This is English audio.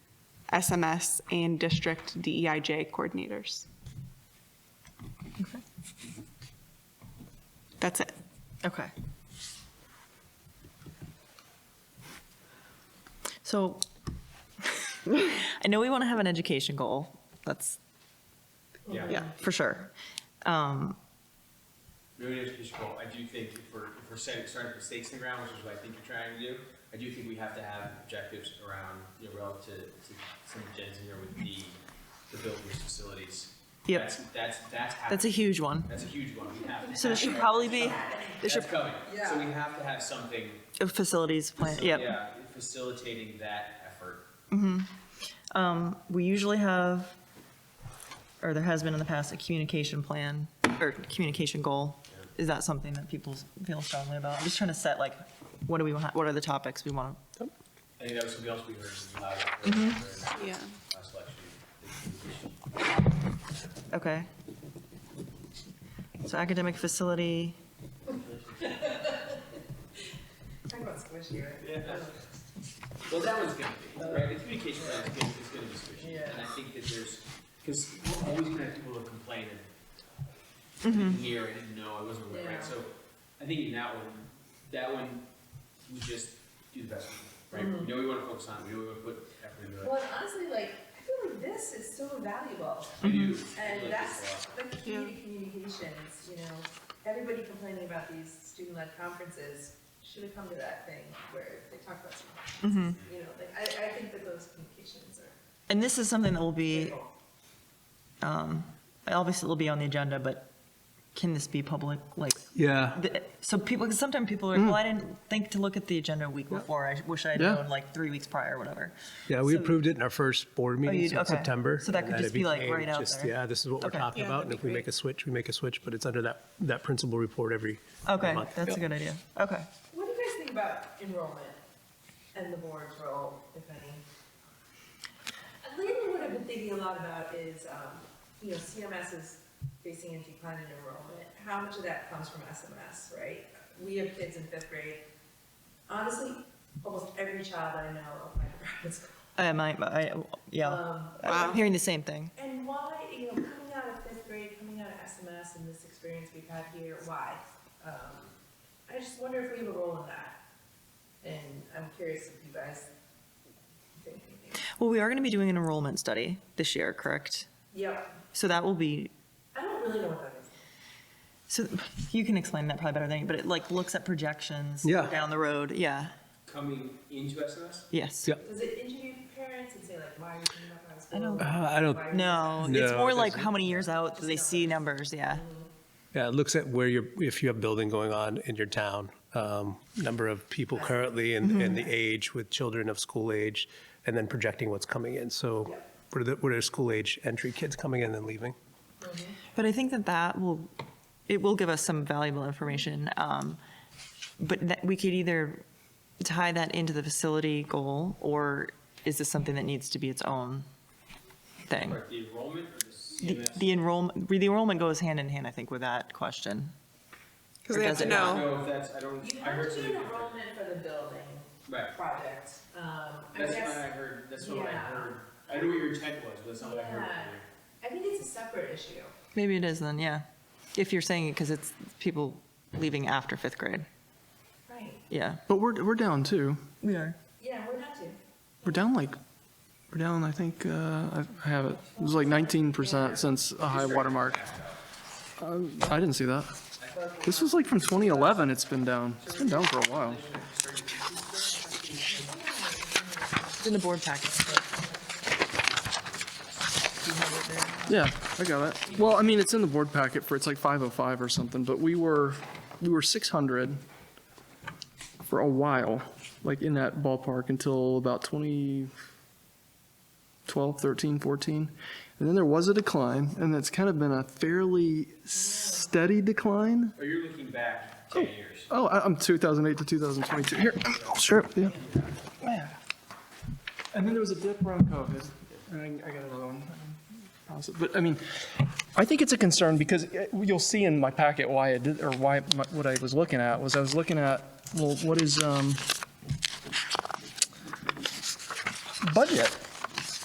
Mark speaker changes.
Speaker 1: SMS, and district DEIJ coordinators. That's it.
Speaker 2: Okay. So I know we want to have an education goal. That's, yeah, for sure.
Speaker 3: Really education goal, I do think if we're, if we're setting, starting to put stakes in the ground, which is what I think you're trying to do, I do think we have to have objectives around, you know, relative to some of Jen's in here with the, the buildings, facilities.
Speaker 2: Yep.
Speaker 3: That's, that's, that's
Speaker 2: That's a
Speaker 3: happening,
Speaker 2: huge one.
Speaker 3: that's a huge one, we have to.
Speaker 2: So there
Speaker 3: have
Speaker 2: should
Speaker 3: that.
Speaker 2: probably be, there should,
Speaker 3: That's coming, so we have to have something,
Speaker 2: a facilities plan,
Speaker 3: so,
Speaker 2: yep.
Speaker 3: yeah, facilitating that effort.
Speaker 2: We usually have, or there has been in the past, a communication plan or communication goal. Is that something that people feel strongly about? I'm just trying to set like, what do we, want? what are the topics we want to
Speaker 3: I think that was something else we heard in the last,
Speaker 2: Mm-hmm.
Speaker 3: during
Speaker 1: Yeah.
Speaker 3: the last election.
Speaker 2: Okay. So academic facility,
Speaker 3: Well, that one's gonna be, right, the communication plan is gonna, is gonna be squishy, and I think that there's, because we're always gonna have people who complain and and hear it and no, I wasn't aware, right, so, I think in that one, that one, we just do the best we can, right? We know we wanna focus on, it, we know we wanna put effort into it,
Speaker 4: Well, and honestly, like, I feel like this is so valuable,
Speaker 3: we do. we
Speaker 4: and
Speaker 3: like this
Speaker 4: that's the key to communications, you know? Everybody complaining about these student-led conferences should have come to that thing where they talk about student. You know, like, I, I think that those communications are.
Speaker 2: and this is something that will be, obviously it'll be on the agenda, but can this be public, like,
Speaker 5: Yeah,
Speaker 2: the- so people, because sometimes people are, well, I didn't think to look at the agenda a week before, I wish I'd
Speaker 5: Mm. Yeah.
Speaker 2: known like three weeks prior or whatever.
Speaker 5: yeah, we
Speaker 2: So- Oh,
Speaker 5: approved it in our first board meeting
Speaker 2: you-
Speaker 5: so in
Speaker 2: okay.
Speaker 5: September.
Speaker 2: So that
Speaker 5: and
Speaker 2: could
Speaker 5: then
Speaker 2: just
Speaker 5: it
Speaker 2: be, like,
Speaker 5: became
Speaker 2: right out
Speaker 5: just,
Speaker 2: there.
Speaker 5: Yeah, this is what we're
Speaker 2: Okay.
Speaker 5: talking
Speaker 2: Yeah,
Speaker 5: about, and if we make a switch, we make a switch, but it's under that, that principal report every
Speaker 2: Okay,
Speaker 5: month.
Speaker 2: that's a good idea, okay.
Speaker 4: What do you guys think about enrollment and the board's role, if any? And Lately, Uh, what I've been thinking a lot about is, um, you know, CMS is facing a decline in enrollment. How much of that comes from SMS, right? We have kids in fifth grade. Honestly, almost every child I know applied for private school.
Speaker 2: I might, I, yeah,
Speaker 4: Um,
Speaker 2: I'm hearing the same thing.
Speaker 4: And why, you know, coming out of fifth grade, coming out of SMS and this experience we've had here, why? Um, I just wonder if we have a role in that. And I'm curious if you guys think anything.
Speaker 2: Well, we are going to be doing an enrollment study this year, correct?
Speaker 4: Yep,
Speaker 2: So that will be
Speaker 4: I don't really know what that is.
Speaker 2: So you can explain that probably better than me, but it like looks at projections
Speaker 5: Yeah.
Speaker 2: down the road. Yeah.
Speaker 3: Coming into SMS,
Speaker 2: Yes.
Speaker 5: Yeah.
Speaker 4: Does it interview parents and say like, why are you coming up out of
Speaker 2: I
Speaker 4: school?
Speaker 2: don't-
Speaker 5: Uh, I don't,
Speaker 4: Why are you-
Speaker 2: No, it's
Speaker 5: No,
Speaker 2: more
Speaker 5: it
Speaker 2: like
Speaker 5: doesn't.
Speaker 2: how many years out do they see numbers? Yeah.
Speaker 5: yeah, it looks at where you're, if you have building going on in your town, um, number of people currently and,
Speaker 2: Mm-hmm.
Speaker 5: and the age with children of school age, and then projecting what's coming in, so what are the, what are school age entry kids coming in and leaving?
Speaker 2: But I think that that will, it will give us some valuable information. Um, but that we could either tie that into the facility goal or is this something that needs to be its own thing?
Speaker 3: or the enrollment or the
Speaker 2: The,
Speaker 3: CMS?
Speaker 2: the enrollment, the enrollment goes hand in hand, I think, with that question.
Speaker 1: Because
Speaker 2: Or
Speaker 1: they have
Speaker 2: does
Speaker 1: to
Speaker 2: it
Speaker 3: I
Speaker 2: not?
Speaker 1: know.
Speaker 3: don't know if that's, I don't,
Speaker 4: You
Speaker 3: I heard
Speaker 4: have to
Speaker 3: something
Speaker 4: do an
Speaker 3: different.
Speaker 4: enrollment for the building
Speaker 3: Right,
Speaker 4: project. Um, I
Speaker 3: that's
Speaker 4: guess-
Speaker 3: what I heard, that's what I
Speaker 4: Yeah.
Speaker 3: heard, I knew what your intent was, but that's not what I heard.
Speaker 4: Yeah. I think it's a separate issue.
Speaker 2: Maybe it is then, yeah. If you're saying it because it's people leaving after fifth grade.
Speaker 4: Right.
Speaker 2: Yeah.
Speaker 6: But we're, we're down too.
Speaker 2: We are.
Speaker 4: Yeah, we're not to.
Speaker 6: We're down like, we're down, I think, uh, I I have it. It was like 19% since a high watermark. Um, I didn't see that. This was like from 2011 it's been down. It's been down for a while.
Speaker 2: It's in the board packet.
Speaker 6: Yeah, I got it. Well, I mean, it's in the board packet for, it's like 505 or something, but we were, we were 600 for a while, like in that ballpark until about 2012, 13, 14. And then there was a decline, and it's kind of been a fairly steady decline.
Speaker 3: Or you're looking back ten years.
Speaker 6: Oh, I- I'm 2008 to 2022. Here, I'll sure, yeah. Yeah. And then there was a dip around COVID. And I I got another one. Pause it. But I mean, I think it's a concern because uh, you'll see in my packet why I did, or why, my- what I was looking at was I was looking at, well, what is, um, budget?